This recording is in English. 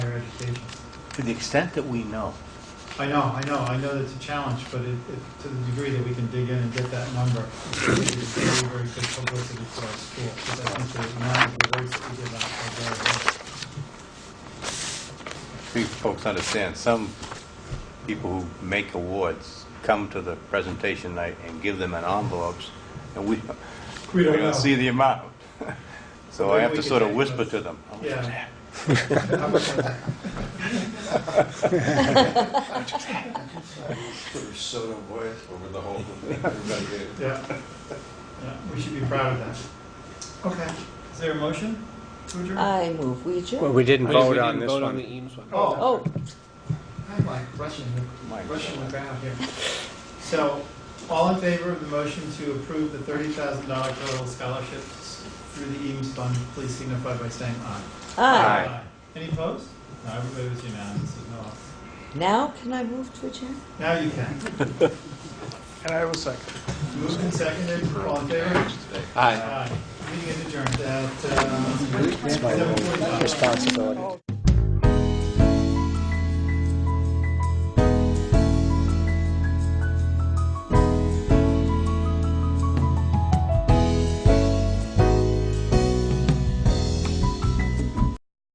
to the extent that we know. I know, I know, I know that's a challenge, but it, it- to the degree that we can dig in and get that number, it is very, very good publicity for our school, because I think the amount of awards that we give out are very high. you folks understand, some people who make awards come to the presentation night and give them an envelopes, and we, we We don't know. don't see the amount. So I Maybe have we to could sort of take whisper those. to them. Yeah. Put a soda voice over the whole thing. Everybody get it. Yeah, yeah, we should be proud of that. Okay, is there a motion to adjourn? I move we adjourn. Well, we didn't We didn't vote on this vote one. the Eames one. Oh, Oh, I'm like rushing, the- My rushing God. the crowd here. So, all in favor of the motion to approve the thirty thousand dollar total scholarships through the Eames Fund, please signify by saying aye. aye. Aye. Any opposed? No, everybody was unanimous, there's no one. Now can I move to adjourn? Now you can. And I will second. Moved and seconded, all in favor? Aye. Aye. Meeting is adjourned at, uh, seven forty-five. Responsibility.